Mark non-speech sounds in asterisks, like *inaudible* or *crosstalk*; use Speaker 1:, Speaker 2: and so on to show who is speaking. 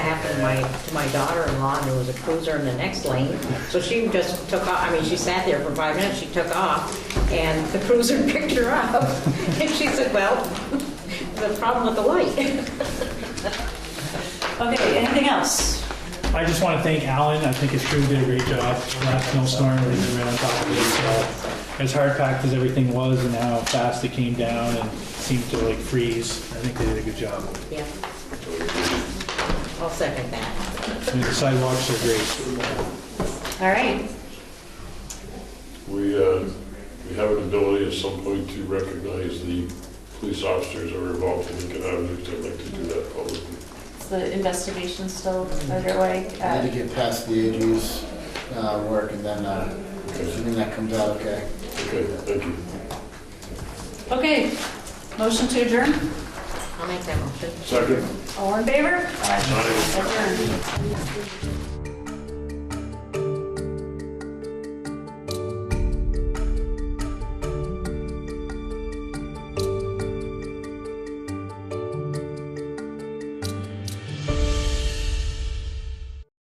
Speaker 1: happened to my, to my daughter-in-law, and there was a cruiser in the next lane. So she just took off, I mean, she sat there for five minutes, she took off, and the cruiser *laughs* picked her up. And she said, well, the problem with the light. *laughs*
Speaker 2: Okay, anything else?
Speaker 3: I just want to thank Alan. I think his crew did a great job. Last snowstorm, everything ran on top of it. So as hard packed as everything was and how fast it came down and seemed to like freeze, I think they did a good job.
Speaker 1: Yeah. I'll second that.
Speaker 3: I mean, the sidewalks are great.
Speaker 2: All right,
Speaker 4: We, uh, we have an ability at some point to recognize the police officers that were involved in Lincoln Avenue, 'cause I'd like to do that publicly.
Speaker 2: is the investigation still underway?
Speaker 5: I
Speaker 2: Uh,
Speaker 5: Need to get past the AG's uh, work and then, uh, assuming that comes out okay.
Speaker 4: Okay, thank you.
Speaker 2: Okay, motion to adjourn,
Speaker 1: I'll make that motion.
Speaker 4: Second?
Speaker 2: all in favor?
Speaker 4: Aye.
Speaker 2: Adjourn.